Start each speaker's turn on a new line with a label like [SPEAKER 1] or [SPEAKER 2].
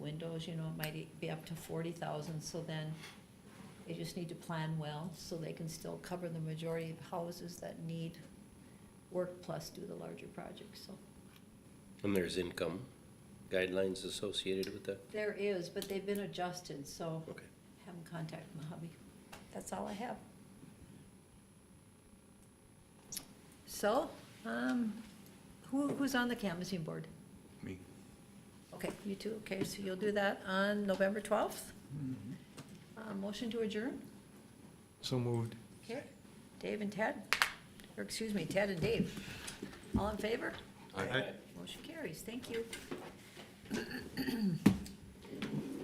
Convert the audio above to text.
[SPEAKER 1] windows, you know, it might be up to forty thousand, so then they just need to plan well, so they can still cover the majority of houses that need work plus do the larger projects, so.
[SPEAKER 2] And there's income guidelines associated with that?
[SPEAKER 1] There is, but they've been adjusted, so
[SPEAKER 2] Okay.
[SPEAKER 1] have them contact Mojave. That's all I have. So, um, who, who's on the canvassing board?
[SPEAKER 3] Me.
[SPEAKER 1] Okay, you two, okay, so you'll do that on November twelfth? Uh, motion to adjourn?
[SPEAKER 3] So moved.
[SPEAKER 1] Okay. Dave and Ted, or excuse me, Ted and Dave. All in favor?
[SPEAKER 3] Aye.
[SPEAKER 1] Motion carries, thank you.